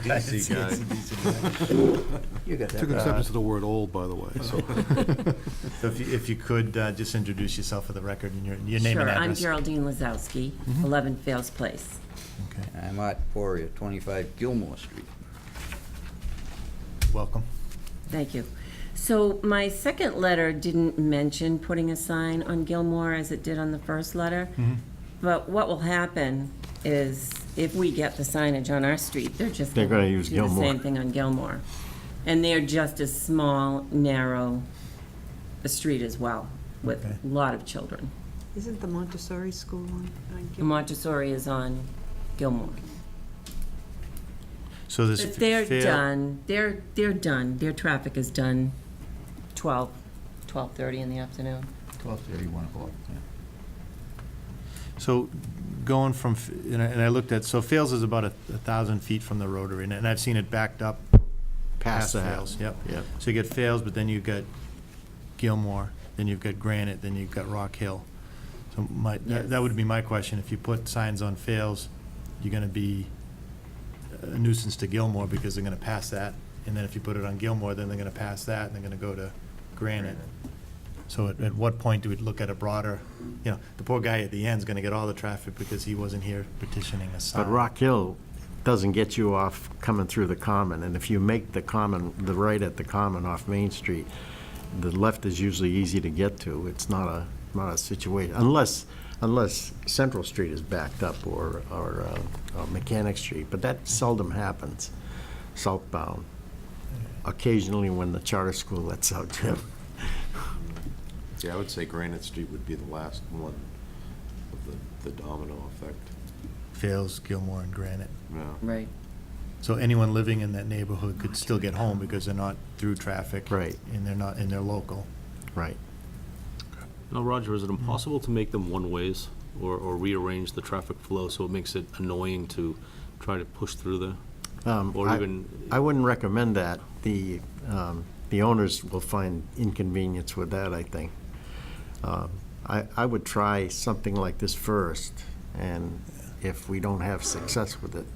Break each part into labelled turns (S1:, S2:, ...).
S1: CDC guy.
S2: You got that.
S3: Took exception to the word old, by the way, so.
S4: So if you, if you could, uh, just introduce yourself for the record and your, your name and
S5: Sure, I'm
S4: address.
S5: Geraldine Lazowski, 11 Fails Place.
S4: Okay,
S2: I'm Art Poria, 25 Gilmore Street.
S4: Welcome.
S5: Thank you. So my second letter didn't mention putting a sign on Gilmore as it did on the first letter. But what will happen is if we get the signage on our street, they're just.
S1: They're gonna use
S5: Do the
S1: Gilmore.
S5: same thing on Gilmore. And they're just a small, narrow uh, street as well with
S4: Okay.
S5: a lot of children.
S6: Isn't the Montessori school on, on
S5: And Montessori is on Gilmore.
S4: So this.
S5: But they're
S4: fair-
S5: done, they're, they're done, their traffic is done 12, 12:30 in the afternoon.
S2: 12:30, 1 o'clock, yeah.
S4: So going from, F- and I, and I looked at, so Fails is about a a thousand feet from the rotary, and- and I've seen it backed up past
S1: Past the house.
S4: Fails, yep.
S1: Yep.
S4: So you get Fails, but then you've got Gilmore, then you've got Granite, then you've got Rock Hill. So my, that that would be my question, if you put signs on Fails, you're gonna be a nuisance to Gilmore because they're gonna pass that, and then if you put it on Gilmore, then they're gonna pass that, and they're gonna go to Granite. So at, at what point do we look at a broader, you know, the poor guy at the end's gonna get all the traffic because he wasn't here petitioning a sign.
S1: But Rock Hill doesn't get you off coming through the common, and if you make the common, the right at the common off Main Street, the left is usually easy to get to. It's not a, not a situation, unless, unless Central Street is backed up or, or uh, uh, Mechanic Street, but that seldom happens southbound. Occasionally when the charter school lets out Jim.
S7: Yeah, I would say Granite Street would be the last one of the, the domino effect.
S4: Fails, Gilmore, and Granite.
S7: Yeah.
S5: Right.
S4: So anyone living in that neighborhood could still get home because they're not through traffic.
S1: Right.
S4: And they're not, and they're local.
S1: Right.
S8: Now, Roger, is it impossible to make them one-ways or or rearrange the traffic flow so it makes it annoying to try to push through there?
S1: Um,
S8: Or
S1: I-
S8: even-
S1: I wouldn't recommend that. The, um, the owners will find inconvenience with that, I think. Um, I, I would try something like this first, and if we don't have success with it,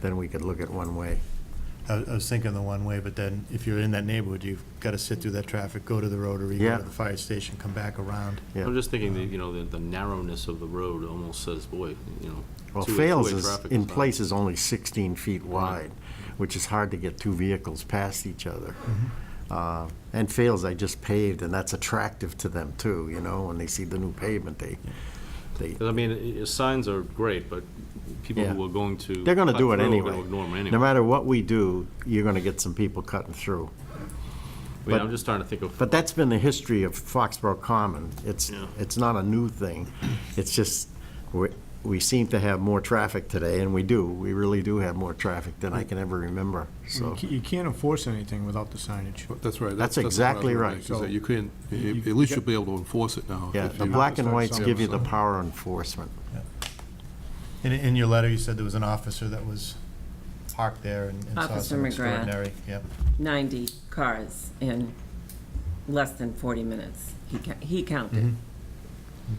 S1: then we could look at one way.
S4: I I was thinking the one way, but then if you're in that neighborhood, you've got to sit through that traffic, go to the rotary, go
S1: Yeah.
S4: to the fire station, come back around.
S1: Yeah.
S8: I'm just thinking, that you know, the- the narrowness of the road almost says, boy, you know.
S1: Well,
S8: two-way-
S1: Fails
S8: two-way
S1: is,
S8: traffic
S1: in
S8: not-
S1: place is only 16 feet wide, which is hard to get two vehicles past each other. Uh, And Fails, I just paved, and that's attractive to them, too, you know, when they see the new pavement, they, they
S8: 'Cause, I mean, i- i- signs are great, but people
S1: Yeah.
S8: who are going to.
S1: They're going to
S8: cut
S1: do it
S8: through are gonna
S1: anyway.
S8: ignore 'em
S1: No
S8: anyway.
S1: matter what we do, you're going to get some people cutting through.
S8: I mean,
S1: but-
S8: I'm just trying to think of.
S1: But that's been the history of Foxborough Common. It's,
S8: Yeah.
S1: it's not a new thing. It's just, we we seem to have more traffic today, and we do. We really do have more traffic than I can ever remember, so.
S9: You can't enforce anything without the signage.
S3: That's right.
S1: That's
S3: what I was
S1: exactly
S3: gonna
S1: right.
S3: make, is that You couldn't, at least you'll be able to enforce it now.
S1: Yeah,
S3: if
S1: the
S3: you-
S1: black and whites give you the
S3: Yeah, so-
S1: power enforcement.
S4: In, in your letter, you said there was an officer that was parked there and and saw
S5: Officer
S4: some
S5: McGrath.
S4: extraordinary. Yep.
S5: 90 cars in less than 40 minutes, he ca- he counted,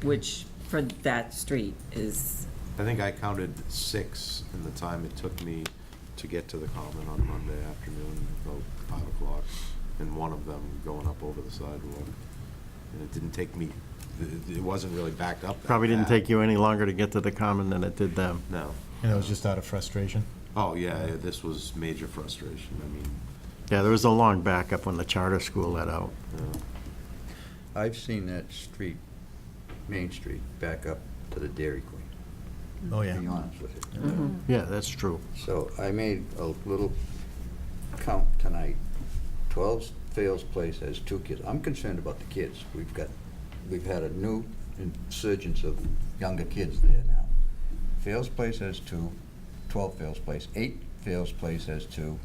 S5: which for that street is,
S7: I think I counted six in the time it took me to get to the common on Monday afternoon, about five o'clock, and one of them going up over the sidewalk. And it didn't take me, it- it wasn't really backed up that
S1: Probably didn't
S7: bad.
S1: take you any longer to get to the common than it did them.
S7: No.
S4: And it was just out of frustration.
S7: Oh, yeah, yeah, this was major frustration. I mean,
S1: Yeah, there was a long backup when the charter school let out.
S2: I've seen that street, Main Street, back up to the Dairy Queen,
S4: Oh,
S2: to
S4: yeah.
S2: be honest with you.
S1: Yeah, that's true.
S2: So I made a little count tonight. 12 Fails Place has two kids. I'm concerned about the kids. We've got, we've had a new insurgence of younger kids there now. Fails Place has two, 12 Fails Place, 8 Fails Place has two.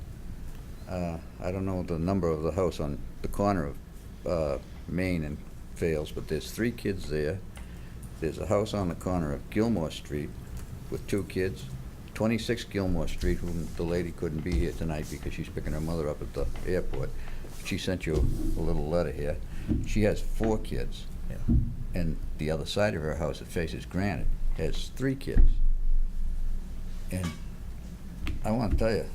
S2: Uh, I don't know the number of the house on the corner of uh, Main and Fails, but there's three kids there. There's a house on the corner of Gilmore Street with two kids, 26 Gilmore Street, whom the lady couldn't be here tonight because she's picking her mother up at the airport. She sent you a little letter here. She has four kids.
S4: Yeah.
S2: And the other side of her house that faces Granite has three kids. And I want to tell you,